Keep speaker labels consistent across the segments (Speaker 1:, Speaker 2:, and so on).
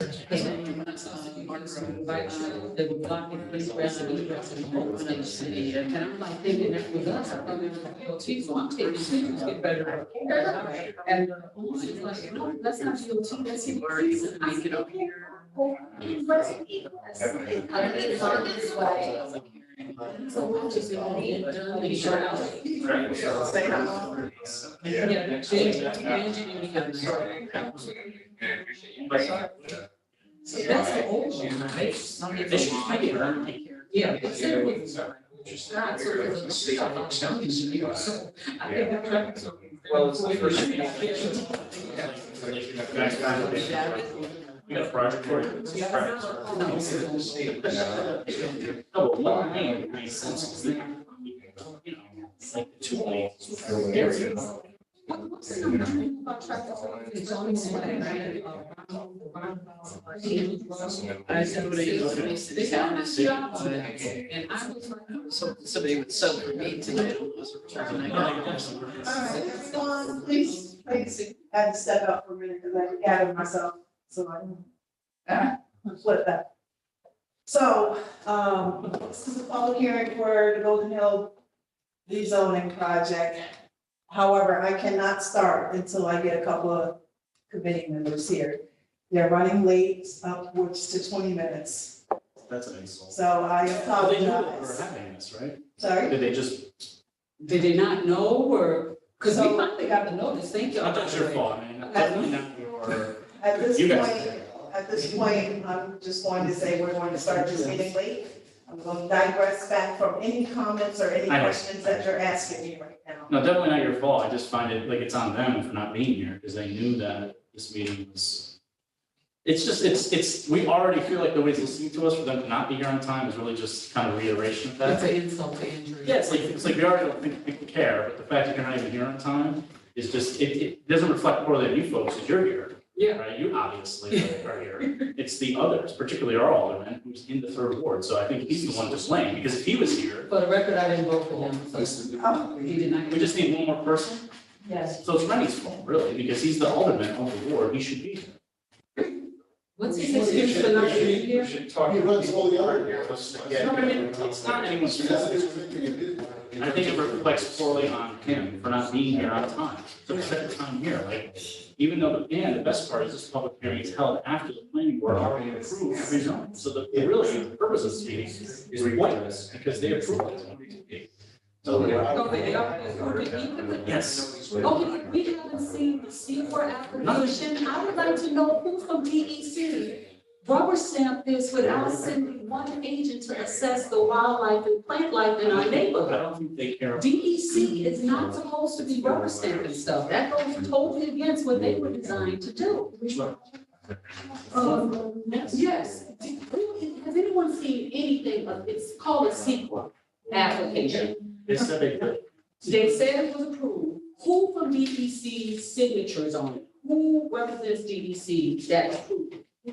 Speaker 1: uh, They were blocking police residents, residents, open city, and I'm like thinking, if we got something, geez, well, I'm taking pictures, get better. And she's like, no, that's not your team, that's your words, and make it up here.
Speaker 2: uh,
Speaker 1: I mean, it's on this way. So we'll just go in, done, and shut out. Yeah, she- imagine you have this. So that's the old one, right? Some of the issues might be around here. Yeah. it's there with- it's not sort of a street, I'm not telling you, you know, so I think the traffic's okay.
Speaker 3: Well, it's the first thing. We got a project for you. It's a project.
Speaker 1: No, it's the old street.
Speaker 3: Oh, well, I mean, my sense is that, you know, it's like the two lanes. Areas.
Speaker 1: What- what's the number about traffic? It's always like, right, uh, I said, what are you doing? They said, they found this job. And I was like, "Oh, so somebody would sell for me tonight. And I "Oh, go,
Speaker 2: All right, it's gone, please, please, I had to step out for a minute because I gathered myself, so I can flip that. So, um, this is a public hearing for the Golden Hill rezoning project. However, I cannot start until um, I get a couple of committee members here. They're running late, upwards to twenty minutes,
Speaker 3: That's an insult.
Speaker 2: so I
Speaker 3: Well, they know that we're
Speaker 2: apologize.
Speaker 3: having this, right?
Speaker 2: Sorry?
Speaker 3: Did they just?
Speaker 1: Did they not know or, because we finally got the notice, thank you.
Speaker 3: I thought your fault, man. Definitely not your.
Speaker 2: At this
Speaker 3: You guys.
Speaker 2: point, At this point, I'm just going to say we're going to start this meeting late. I'm going to digress back from any comments or any
Speaker 3: I know.
Speaker 2: questions that you're asking me right now.
Speaker 3: No, definitely not your fault. I just find it, like, it's on them for not being here, because they knew that this meeting was. It's just, it's, it's, we already feel like nobody's listening to us, for them to not be here on time is really just kind of reiteration of
Speaker 1: That's
Speaker 3: that.
Speaker 1: an insult to injury.
Speaker 3: Yeah, it's like, it's like we already don't think, think we care, but the fact that you're not even here on time is just, it, it doesn't reflect more than you folks, because you're here.
Speaker 1: Yeah.
Speaker 3: Right, you obviously are here. It's the others, particularly our alderman, who's in the third ward, so I think he's the one to blame, because if he was here,
Speaker 1: For the record, I didn't vote for him, so
Speaker 2: Oh,
Speaker 1: he did not.
Speaker 3: we just need one more person.
Speaker 1: Yes.
Speaker 3: So it's Rennie's fault, really, because he's the alderman of the board, he should be here.
Speaker 1: What's his excuse for not being here?
Speaker 4: He runs all the other
Speaker 3: No, I mean, it's not anyone's fault. I think it reflects poorly on him for not being here on time. So we set the time here, like, even though, and the best part is this public hearing is held after the planning board already approved every zone. So the, the really, the purpose of this meeting is pointless, because they approved it. So, uh,
Speaker 1: No, they are- okay, we-
Speaker 3: yes,
Speaker 1: Okay, we haven't seen the C4 application. I would like to know who from DEC rubber stamped this without sending one agent to assess the wildlife and plant life in our
Speaker 3: I
Speaker 1: neighborhood.
Speaker 3: don't think they care.
Speaker 1: DEC is not supposed to be rubber stamping stuff. That goes totally against what they were designed to do. Um, yes, Do- who- has anyone seen anything of, it's called a CEQA application.
Speaker 3: They said they could.
Speaker 1: They said it was approved. Who from DEC signatures on it? Who represents DEC that approved? it?
Speaker 3: Oh.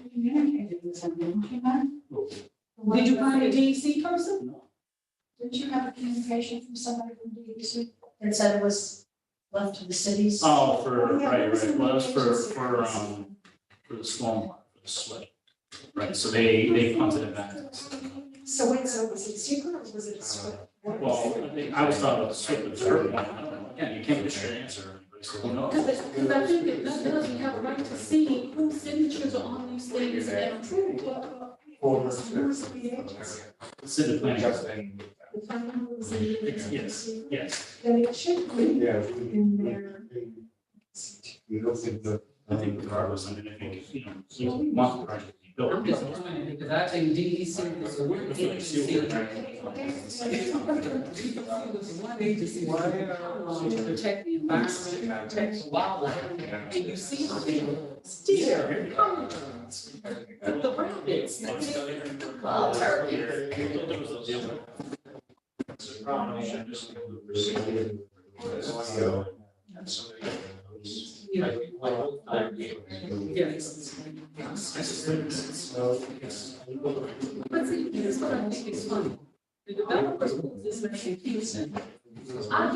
Speaker 1: Did you find a DEC person?
Speaker 5: Didn't you have a communication from somebody from DEC that said it was left to the cities?
Speaker 3: Oh, for, right, right, well, that's for, for, um, for the storm, for the sweat. Right, so they, they punted it back.
Speaker 5: So wait, so was it secret or was it a script?
Speaker 3: Well, I think- I was talking about the sweat, but it's her point, I don't know, again, you can't get a straight answer, so who knows?
Speaker 1: Because, because I think that none of us have a right to see whose signatures are on these things and approved.
Speaker 3: It's in the planning.
Speaker 5: The time was in the
Speaker 3: It's- Yes, yes,
Speaker 5: Then it should be
Speaker 4: Yeah.
Speaker 5: in there.
Speaker 4: You don't think that.
Speaker 3: I think regardless, I mean, I think, you know, you want the project to be built.
Speaker 1: I'm disappointed because I think DEC was one agency. DEC was one agency um, to protect the environment, protect the wildlife. And you see how they steer, come, with the rabbits, the big, uh, turkeys. Yeah. But see, here's what I think is funny. The developers put this in Houston. I